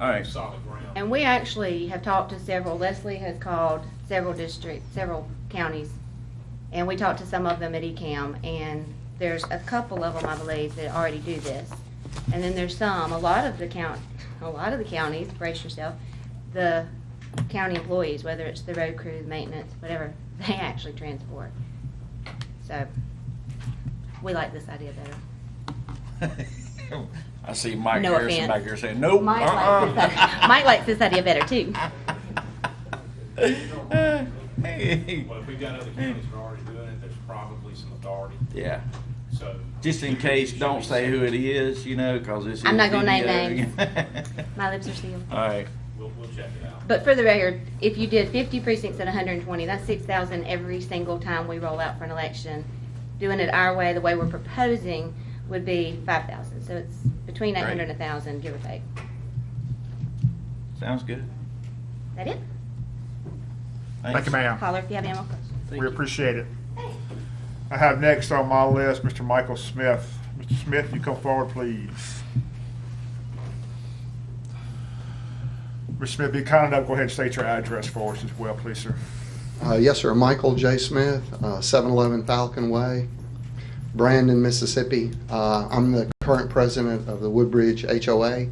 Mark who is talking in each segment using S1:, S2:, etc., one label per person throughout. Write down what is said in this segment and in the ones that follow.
S1: All right.
S2: solid ground.
S3: And we actually have talked to several, Leslie has called several districts, several counties, and we talked to some of them at E ECAM, and there's a couple of them, I believe, that already do this. And then there's some, a lot of the count, a lot of the counties, brace yourself, the county employees, whether it's the road crew, maintenance, whatever, they actually transport. So, we like this idea better.
S1: I see Mike
S3: No
S1: Harrison
S3: offense.
S1: back here saying, nope.
S3: Mike likes this
S1: Oh, uh-uh."
S3: idea- Mike likes this idea better, too.
S1: Uh, Hey.
S2: Well, if we've got other counties that are already doing it, there's probably some authority,
S1: Yeah,
S2: so.
S1: just in case, don't say who it is, you know, cause this is.
S3: I'm not gonna name
S1: video.
S3: My lips are sealed.
S1: All right,
S2: We'll, we'll check it out.
S3: But for the record, if you did fifty precincts at hundred and twenty, that's six thousand every single time we roll out for an election. Doing it our way, the way we're proposing, would be five thousand, so it's between
S1: Right.
S3: eight hundred and a thousand, give or take.
S1: sounds good.
S3: Is that it?
S4: Thank
S1: Thanks.
S4: you, ma'am.
S3: Caller, if you have any more questions.
S1: Thank
S4: We
S1: you.
S4: appreciate it. I have next on my list Mr. Michael Smith. Mr. Smith, you come forward, please. Mr. Smith, be kind enough, go ahead and state your address for us as well, please, sir.
S5: Uh, Yes, sir. Michael J. Smith, uh, 711 Falcon Way, Brandon, Mississippi. Uh, I'm the current president of the Woodbridge HOA,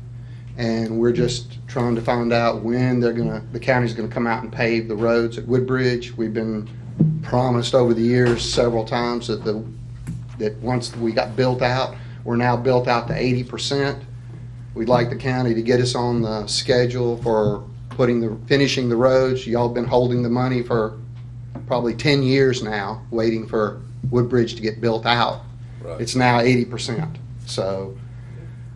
S5: and we're just trying to find out when they're going to, the county's going to come out and pave the roads at Woodbridge. We've been promised over the years several times that the, that once we got built out, we're now built out to 80%. We'd like the county to get us on the schedule for putting the, finishing the roads. Y'all been holding the money for probably 10 years now, waiting for Woodbridge to get built out. It's now 80%. So,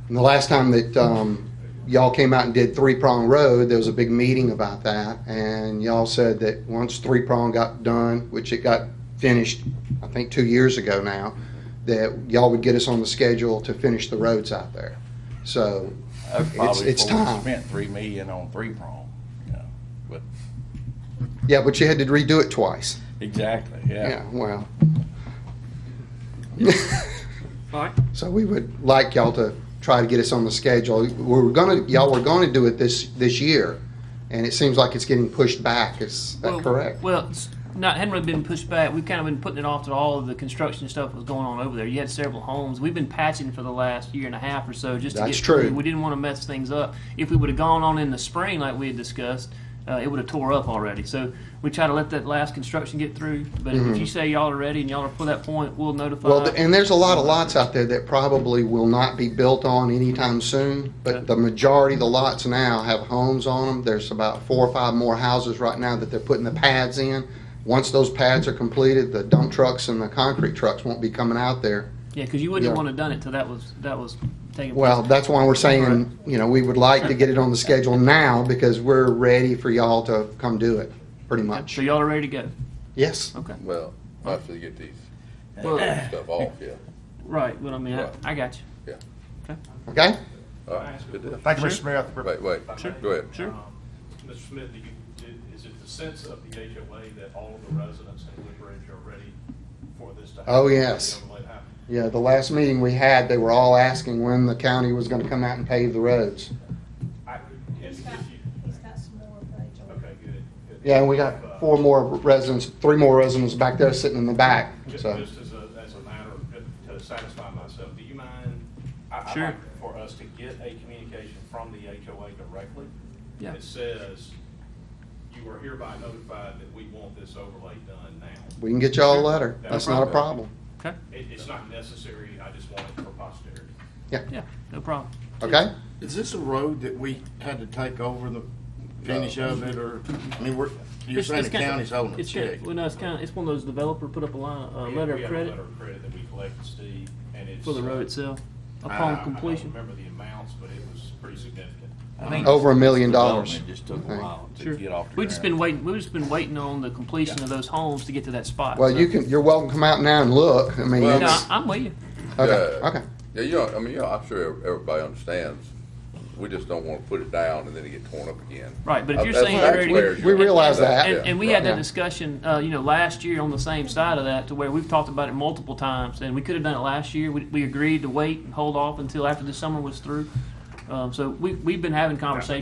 S5: and the last time that um, y'all came out and did Three Prong Road, there was a big meeting about that, and y'all said that once Three Prong got done, which it got finished, I think, two years ago now, that y'all would get us on the schedule to finish the roads out there. So,
S1: That's
S5: it's,
S1: probably
S5: it's
S1: before we
S5: time.
S1: Spent three million on three prong, you know, but,
S5: Yeah, but you had to redo it twice.
S1: exactly,
S5: Yeah,
S1: yeah.
S5: well.
S6: Mike?
S5: So we would like y'all to try to get us on the schedule. We were gonna, y'all were gonna do it this, this year, and it seems like it's getting pushed back. Is that
S6: Well-
S5: correct?
S6: Well, it's not, hadn't really been pushed back. We've kind of been putting it off till all of the construction stuff was going on over there. You had several homes. We've been patching for the last year and a half or so just to
S5: That's
S6: get through.
S5: true.
S6: We didn't want to mess things up. If we would have gone on in the spring like we had discussed, uh, it would have tore up already. So we try to let that last construction get through. But if you say y'all are ready and y'all are for that point, we'll notify.
S5: Mm-hmm. Well, th- and there's a lot of lots out there that probably will not be built on anytime soon,
S6: Okay.
S5: but the majority of the lots now have homes on them. There's about four or five more houses right now that they're putting the pads in. Once those pads are completed, the dump trucks and the concrete trucks won't be coming out there.
S6: yeah, because you wouldn't
S5: Yeah.
S6: want to done it till that was that was taken.
S5: Well,
S6: place.
S5: that's why we're saying, you know, we would like to get it on the schedule now because we're ready for y'all to come do it, pretty much.
S6: So y'all are ready to go.
S5: Yes.
S6: Okay.
S7: Well, after you get these
S6: Well,
S7: stuff off, yeah,
S6: right. But I mean,
S7: Right.
S6: I, I got you.
S5: Okay?
S7: all right, good deal.
S4: Thank you,
S6: Sure.
S4: Mr. Smith.
S7: Wait, wait,
S2: Sure.
S7: go ahead.
S6: Sure.
S2: Um, Mr. Smith, do you, do- is it the sense of the HOA that all of the residents in Woodbridge are ready for this to happen?
S5: Oh, yes.
S2: To be able to let it happen?
S5: Yeah, the last meeting we had, they were all asking when the county was gonna come out and pave the roads.
S2: I, if
S8: He's
S2: if
S8: got,
S2: you,
S8: he's got some more of that, Joel.
S2: okay, good. good. Uh,
S5: Yeah, and we got four more residents, three more residents back there sitting in the back,
S2: Just,
S5: so.
S2: just as a, as a matter of, to satisfy myself, do you mind? I- I'd
S6: Sure.
S2: like For us to get a communication from the HOA directly.
S6: Yeah.
S2: That says, you are hereby notified that we want this overlay done now.
S5: We can get y'all a letter. That's not a problem.
S6: Okay.
S2: It, it's not necessary, I just want it for posterity.
S6: Yeah. No problem.
S5: Okay?
S9: Is this a road that we had to take over the finish of it, or, I mean, we're, you're saying the
S6: kinda-
S9: county's holding the
S6: it's kinda-
S9: check?
S6: Well, no, it's kind of, it's one of those developer put up a line, a
S2: We-
S6: letter
S2: we have
S6: of
S2: a
S6: credit
S2: Letter of credit that we collected, Steve, and it's.
S6: for the road
S2: uh,
S6: itself
S2: I- I
S9: Ah.
S6: upon
S2: don't
S6: completion.
S2: Remember the amounts, but it was pretty significant.
S1: I think
S5: Over a million dollars.
S1: It just took a while to
S6: Sure.
S1: get off the ground.
S6: We've just been waiting, we've just been waiting on the completion of those homes to get to that spot.
S5: Well,
S6: so-
S5: you can, you're welcome to come out now and look. I mean,
S7: Well-
S6: No,
S5: it's,
S6: I- I'm with you.
S5: okay,
S7: Yeah.
S5: okay.
S7: Yeah, you know, I mean, you know, I'm sure everybody understands, we just don't wanna put it down and then it get torn up again.
S6: Right, but if
S7: Uh,
S6: you're
S7: that's-
S6: saying
S7: that's
S6: you're ready-
S7: where
S5: We
S7: you're-
S5: realize that.
S6: And, and we had
S5: Yeah.
S6: that discussion, uh, you know, last year on the same side of that, to where we've talked about it multiple times, and we could have done it last year. We, we agreed to wait and hold off until after the summer was through. Um, so we, we've been having conversations